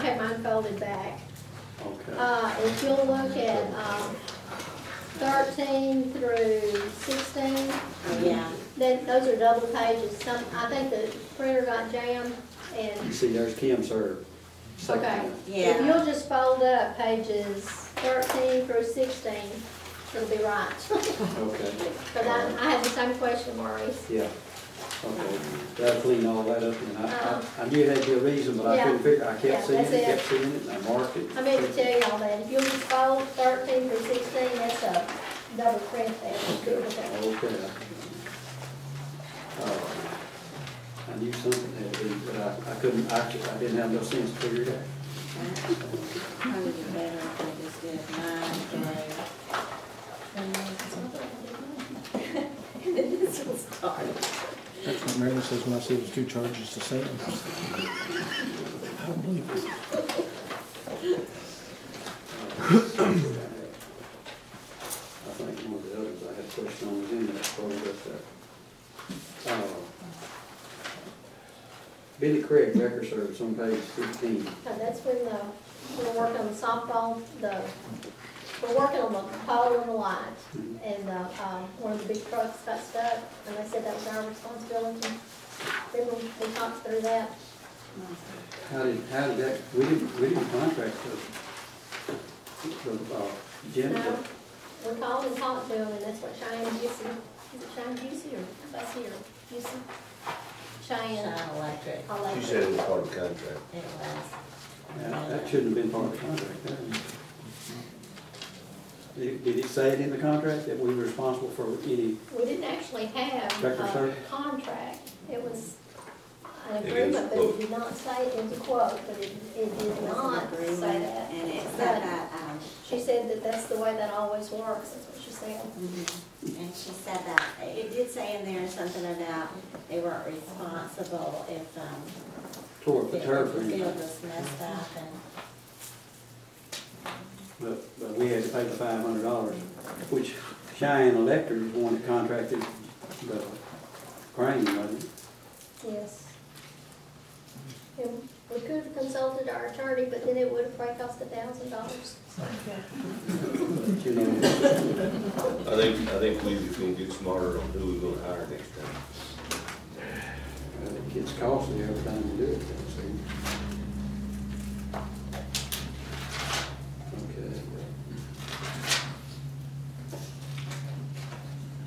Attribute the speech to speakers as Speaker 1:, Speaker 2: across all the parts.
Speaker 1: have mine folded back.
Speaker 2: Okay.
Speaker 1: Uh, if you'll look at, um, thirteen through sixteen,
Speaker 3: Yeah,
Speaker 1: then those are double pages. Some, I think the printer got jammed
Speaker 2: You
Speaker 1: and
Speaker 2: see, there's Kim's her second
Speaker 1: Okay.
Speaker 2: one.
Speaker 3: yeah.
Speaker 1: if you'll just fold up pages thirteen through sixteen, it'll be right.
Speaker 2: Okay,
Speaker 1: But I, I had the same question, Maurice.
Speaker 2: yeah. Okay, that'll clean all that up, and I,
Speaker 1: Uh-huh.
Speaker 2: I, I knew that'd be a reason, but I
Speaker 1: Yeah.
Speaker 2: couldn't figure, I
Speaker 1: Yeah,
Speaker 2: kept seeing
Speaker 1: that's
Speaker 2: it,
Speaker 1: it.
Speaker 2: kept seeing it, and I marked it.
Speaker 1: I meant to tell y'all that, if you'll just fold thirteen through sixteen, that's a double print there.
Speaker 2: Okay, okay. Uh, I knew something had to be, but I, I couldn't, I, I didn't have no sense to figure it out.
Speaker 3: Probably better if I just did mine through. And then this will start.
Speaker 4: That's what Mary says when I say there's two charges the same. I don't believe it.
Speaker 2: I think one of the others I had a question on was in that folder up there. Uh, Billy Craig, Record Service, on page fifteen.
Speaker 1: So that's when the, we're working on the softball, the, we're working on the pole and the light. And, uh, um, one of the big trucks got stuck, and they said that was our responsibility. Remember, we talked through that.
Speaker 2: How did, how did that, we didn't, we didn't contract the, the, uh,
Speaker 1: No,
Speaker 2: janitor.
Speaker 1: we called and talked to them, and that's what Cheyenne Gissy, is it Cheyenne Gissy or Bessie or Gissy? Cheyenne, uh,
Speaker 3: Shine electric,
Speaker 1: I like
Speaker 5: She
Speaker 1: it.
Speaker 5: said it was part of the contract.
Speaker 3: it was.
Speaker 2: Yeah, That shouldn't have been part of the contract, that one. Did did it say it in the contract that we were responsible for any,
Speaker 1: We didn't actually have
Speaker 2: Record
Speaker 1: a
Speaker 2: service?
Speaker 1: contract. It was an
Speaker 5: It is
Speaker 1: agreement, but it
Speaker 5: quote.
Speaker 1: did not say it was a quote, but it, it
Speaker 3: It
Speaker 1: did
Speaker 3: was an
Speaker 1: not say
Speaker 3: agreement,
Speaker 1: that.
Speaker 3: and it
Speaker 1: But
Speaker 3: said that, um,
Speaker 1: She said that that's the way that always works, that's what she said.
Speaker 3: and she said that, it did say in there something about they weren't responsible if, um,
Speaker 2: toward
Speaker 3: the
Speaker 2: the turf or
Speaker 3: field
Speaker 2: anything?
Speaker 3: was messed up and,
Speaker 2: But, but we had to pay the five hundred dollars, which Cheyenne Electric is the one that contracted the crane, wasn't it?
Speaker 1: Yes. And we could have consulted our attorney, but then it would have probably cost a thousand dollars.
Speaker 2: But, you know,
Speaker 5: I think, I think we just gonna get smarter on who we're gonna hire next time.
Speaker 2: it gets costly every time you do it, it seems.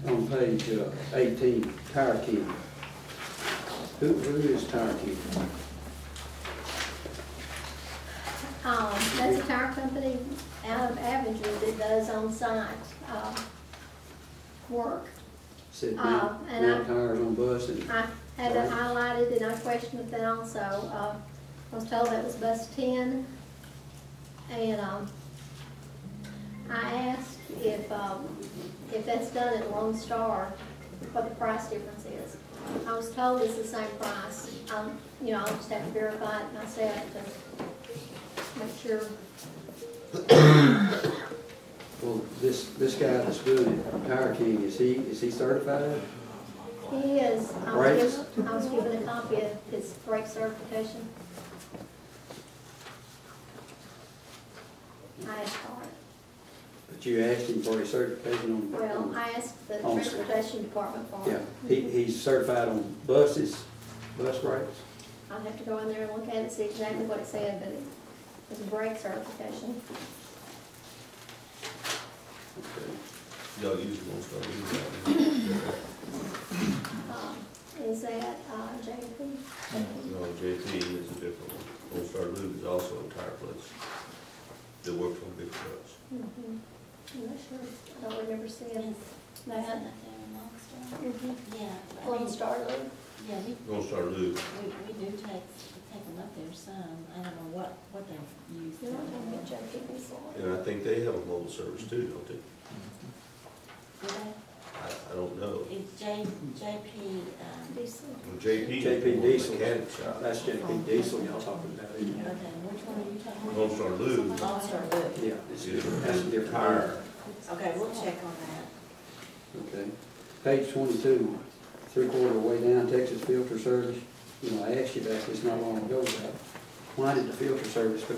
Speaker 2: Okay. On page uh, eighteen, Tire King. Who, who is Tire King?
Speaker 1: Um, that's a tire company out of Avenger that does on-site, um, work.
Speaker 2: Said
Speaker 1: Uh,
Speaker 2: Mount,
Speaker 1: and I-
Speaker 2: Mount Tires on bus and,
Speaker 1: I had that highlighted and I questioned that also. Uh, I was told that was bus ten. And, um, I asked if, um, if that's done at Lone Star, what the price difference is. I was told it's the same price. Um, you know, I'll just have to verify it myself to make sure.
Speaker 2: well, this, this guy that's doing it, Tire King, is he, is he certified?
Speaker 1: He is, um, I
Speaker 2: Right.
Speaker 1: was given, I was given a copy of his brake certification. I asked for it.
Speaker 2: But you asked him for a certification on.
Speaker 1: Well,
Speaker 2: on-
Speaker 1: I asked the
Speaker 2: Oh, sorry.
Speaker 1: transportation department for
Speaker 2: Yeah,
Speaker 1: it.
Speaker 2: he, he's certified on buses, bus rates.
Speaker 1: I'll have to go in there and look at it, see exactly what it said, but it was a brake certification.
Speaker 2: Okay.
Speaker 5: Y'all use it most of them.
Speaker 1: Um, Is that uh, Mm-hmm. JP?
Speaker 5: No, JP is a different one. Old Star Lube is also a tire place that works on big trucks.
Speaker 1: Mhm. I'm not sure, I don't remember seeing that. Mhm.
Speaker 3: yeah. I
Speaker 1: Lone
Speaker 3: mean,
Speaker 1: Star Loop.
Speaker 3: Yeah, we
Speaker 5: Old Star Lube,
Speaker 3: We, we do take, take them up there some, I don't know what, what they use.
Speaker 1: You're not gonna get JP before.
Speaker 5: and I think they have a mobile service too, don't they?
Speaker 3: Do they?
Speaker 5: I, I don't know.
Speaker 3: It's J, JP, um,
Speaker 1: Diesel.
Speaker 5: Well, JP.
Speaker 2: JP Diesel.
Speaker 5: Mechanic shop.
Speaker 2: That's JP Diesel y'all talking about, isn't
Speaker 3: okay,
Speaker 2: it?
Speaker 3: which one are you talking
Speaker 5: Old
Speaker 3: about?
Speaker 5: Star Lube
Speaker 3: Lost or Loop?
Speaker 2: Yeah, it's
Speaker 5: is
Speaker 2: different, that's a
Speaker 5: a
Speaker 2: different.
Speaker 5: tire.
Speaker 3: Okay, we'll check on that.
Speaker 2: Okay. Page twenty-two, three-quarter way down, Texas Filter Service. You know, I asked you that, it's not long ago, about why did the filter service go